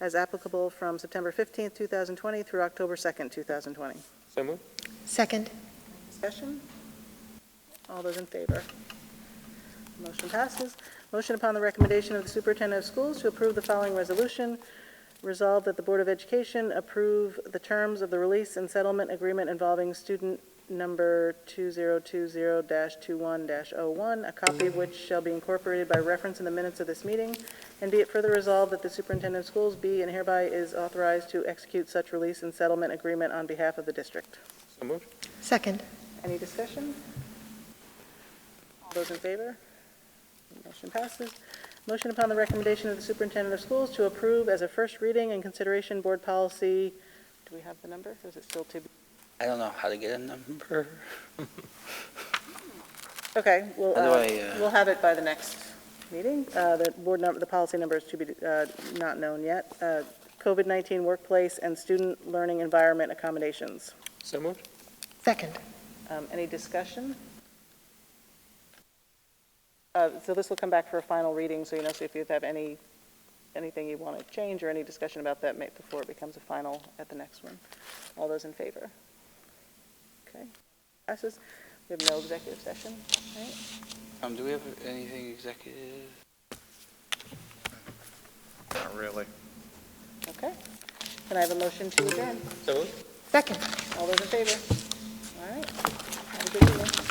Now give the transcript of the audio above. as applicable from September 15th, 2020 through October 2nd, 2020. So moved. Second. Discussion? All those in favor? Motion passes. Motion upon the recommendation of the superintendent of schools to approve the following resolution. Resolved that the Board of Education approve the terms of the release and settlement agreement involving student number 2020-21-01, a copy of which shall be incorporated by reference in the minutes of this meeting. And be it further resolved that the superintendent of schools be and hereby is authorized to execute such release and settlement agreement on behalf of the district. So moved. Second. Any discussion? All those in favor? Motion passes. Motion upon the recommendation of the superintendent of schools to approve as a first reading and consideration board policy, do we have the number? Or Is it still to be? I don't know how to get a number. Okay, we'll, How do uh, I, uh, we'll have it by the next meeting. Uh, The board number, the policy number is to be uh, not known yet. Uh, COVID-19 workplace and student learning environment accommodations. So moved. Second. Um, Any discussion? Uh, So this will come back for a final reading, so you know, so if you have any, anything you want to change or any discussion about that, make before it becomes a final at the next one. All those in favor? Okay, passes. We have no executive session, right? Um, do we have anything executive? Not really. Okay. Can I have a motion to adjourn? So moved. Second. All those in favor? All right. Have a good evening.